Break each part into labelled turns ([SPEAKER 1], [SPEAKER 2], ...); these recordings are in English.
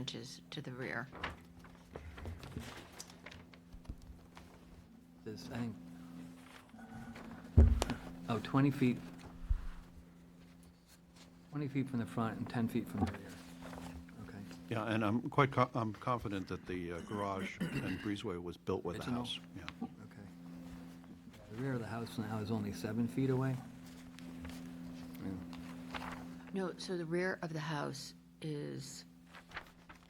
[SPEAKER 1] inches to the rear.
[SPEAKER 2] This, I think, oh, 20 feet, 20 feet from the front and 10 feet from the rear. Okay.
[SPEAKER 3] Yeah, and I'm quite, co- I'm confident that the uh, garage and breezeway was built with the
[SPEAKER 2] Original.
[SPEAKER 3] house. Yeah.
[SPEAKER 2] Okay. The rear of the house now is only seven feet away? Yeah.
[SPEAKER 1] No, so the rear of the house is,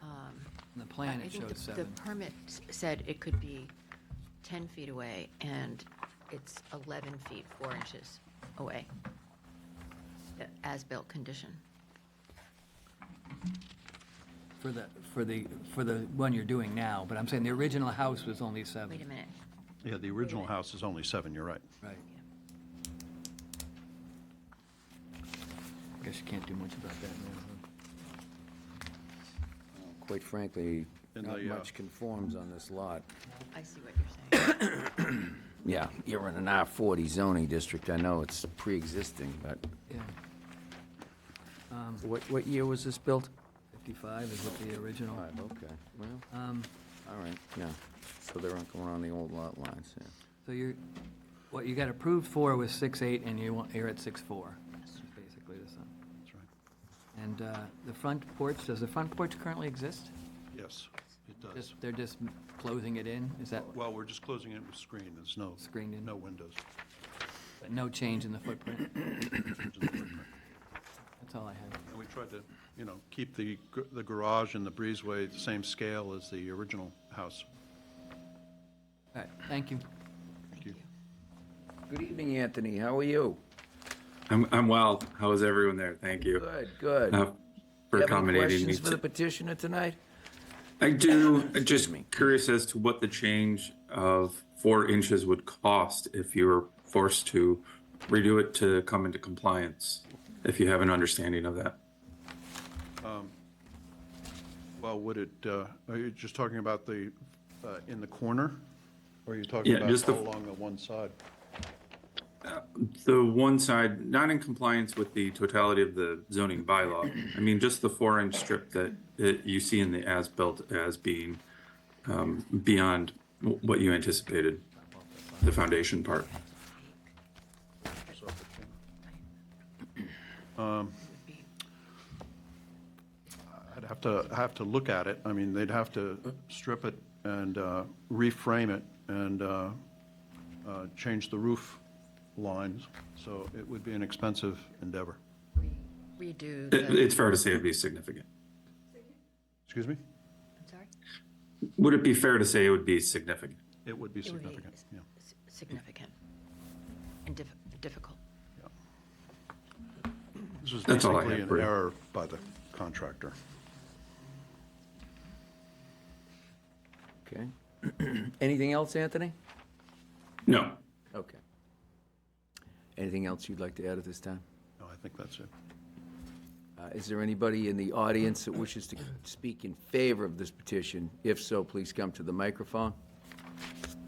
[SPEAKER 1] um,
[SPEAKER 2] On the plan,
[SPEAKER 1] I- I
[SPEAKER 2] it
[SPEAKER 1] think the-
[SPEAKER 2] shows seven.
[SPEAKER 1] The permit s- said it could be 10 feet away, and it's 11 feet, 4 inches away. The As-built condition.
[SPEAKER 2] For the, for the, for the one you're doing now, but I'm saying the original house was only seven.
[SPEAKER 1] Wait a minute.
[SPEAKER 3] Yeah, the original house is only seven, you're right.
[SPEAKER 2] Right. Guess you can't do much about that now,
[SPEAKER 4] Quite frankly,
[SPEAKER 3] And
[SPEAKER 4] not
[SPEAKER 3] the, uh,
[SPEAKER 4] much conforms on this lot.
[SPEAKER 1] I see what you're saying.
[SPEAKER 4] Yeah, you're in an R40 zoning district, I know it's pre-existing, but
[SPEAKER 2] huh? Yeah.
[SPEAKER 4] what, what year was this built?
[SPEAKER 2] 55 is what the original.
[SPEAKER 4] Five, okay, well,
[SPEAKER 2] Um,
[SPEAKER 4] all right, yeah, so they're not going on the old lot lines, yeah.
[SPEAKER 2] So you're, what you got approved for was six eight, and you want, you're at six four. basically the sum.
[SPEAKER 3] That's right.
[SPEAKER 2] And uh, the front porch, does the front porch currently exist?
[SPEAKER 3] Yes, it does.
[SPEAKER 2] Just, they're just closing it in? Is that,
[SPEAKER 3] Well, we're just closing it with screen, there's no,
[SPEAKER 2] Screened in.
[SPEAKER 3] no windows.
[SPEAKER 2] no change in the footprint?
[SPEAKER 3] And
[SPEAKER 2] That's all I have.
[SPEAKER 3] we tried to, you know, keep the, gr- the garage and the breezeway the same scale as the original house.
[SPEAKER 2] All right, thank you.
[SPEAKER 1] Thank
[SPEAKER 3] you.
[SPEAKER 1] you.
[SPEAKER 4] Good evening, Anthony, how are you?
[SPEAKER 5] I'm, I'm well. How is everyone there? Thank you
[SPEAKER 4] Good, good.
[SPEAKER 5] uh,
[SPEAKER 4] You
[SPEAKER 5] for
[SPEAKER 4] have any
[SPEAKER 5] accommodating me.
[SPEAKER 4] questions for the
[SPEAKER 5] to-
[SPEAKER 4] petitioner tonight?
[SPEAKER 5] I do. I'm just
[SPEAKER 4] me.
[SPEAKER 5] curious as to what the change of four inches would cost if you were forced to redo it to come into compliance. If you have an understanding of that,
[SPEAKER 3] Well, would it, uh, are you just talking about the, uh, in the corner? Or are you talking
[SPEAKER 5] Yeah,
[SPEAKER 3] about
[SPEAKER 5] just the-
[SPEAKER 3] all along the one side?
[SPEAKER 5] the one side not in compliance with the totality of the zoning bylaw. I mean, just the four-inch strip that, that you see in the as-built as being um, beyond w- what you anticipated, the foundation part.
[SPEAKER 1] Would be-
[SPEAKER 3] Um, I'd have to, have to look at it. I mean, they'd have to strip it and uh, reframe it and uh, uh, change the roof lines, so it would be an expensive endeavor.
[SPEAKER 1] Redo
[SPEAKER 5] It-
[SPEAKER 1] the,
[SPEAKER 5] It's fair to say it'd be significant.
[SPEAKER 3] Excuse me?
[SPEAKER 1] I'm sorry?
[SPEAKER 5] Would it be fair to say it would be significant?
[SPEAKER 3] It would be
[SPEAKER 1] It would be
[SPEAKER 3] significant,
[SPEAKER 1] s-
[SPEAKER 3] yeah.
[SPEAKER 1] s- Significant. And diff- difficult.
[SPEAKER 3] This was
[SPEAKER 5] That's all I
[SPEAKER 3] basically
[SPEAKER 5] had
[SPEAKER 3] an
[SPEAKER 5] for you.
[SPEAKER 3] error by the contractor.
[SPEAKER 4] Okay. Anything else, Anthony?
[SPEAKER 5] No.
[SPEAKER 4] Okay. Anything else you'd like to add at this time?
[SPEAKER 3] No, I think that's it.
[SPEAKER 4] Uh, Is there anybody in the audience that wishes to speak in favor of this petition? If so, please come to the microphone.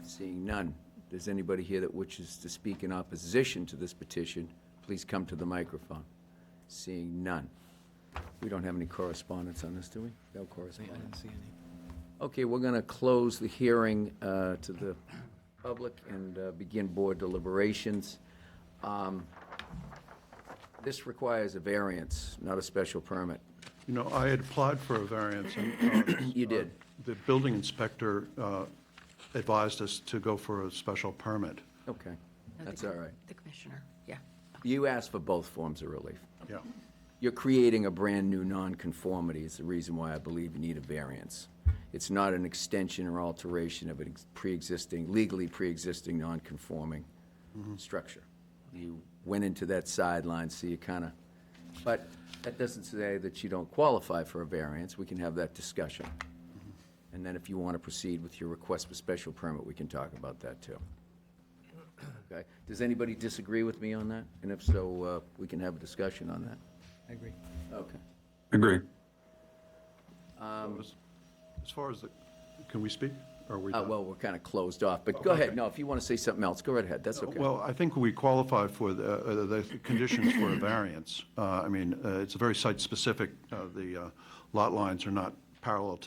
[SPEAKER 4] Seeing none, does anybody here that wishes to speak in opposition to this petition, please come to the microphone? Seeing none. We don't have any correspondence on this, do we? No
[SPEAKER 2] I
[SPEAKER 4] correspondence.
[SPEAKER 2] didn't see any.
[SPEAKER 4] Okay, we're going to close the hearing uh, to the public and uh, begin board deliberations. Um, This requires a variance, not a special permit.
[SPEAKER 3] You know, I had applied for a variance and. uh,
[SPEAKER 4] You did.
[SPEAKER 3] The building inspector uh, advised us to go for a special permit.
[SPEAKER 4] Okay,
[SPEAKER 1] No, the
[SPEAKER 4] that's
[SPEAKER 1] co-
[SPEAKER 4] all right.
[SPEAKER 1] The commissioner, yeah.
[SPEAKER 4] You asked for both forms of relief.
[SPEAKER 3] Yeah,
[SPEAKER 4] You're creating a brand-new nonconformity is the reason why I believe you need a variance. It's not an extension or alteration of a pre-existing, legally pre-existing non-conforming structure. You went into that sideline, so you kind of, but that doesn't say that you don't qualify for a variance. We can have that discussion. And then if you want to proceed with your request for special permit, we can talk about that, too. Okay? Does anybody disagree with me on that? And if so, uh, we can have a discussion on that.
[SPEAKER 2] I agree.
[SPEAKER 4] Okay.
[SPEAKER 5] Agree.
[SPEAKER 4] Um,
[SPEAKER 3] As- as far as the, can we speak? Or are we?
[SPEAKER 4] Uh,
[SPEAKER 3] not?
[SPEAKER 4] well, we're kind of closed off, but go ahead. No, if you want to say something else, go right ahead. That's okay.
[SPEAKER 3] Well, I think we qualify for the, uh, the conditions for a variance. Uh, I mean, uh, it's very site-specific. Uh, The uh, lot lines are not parallel to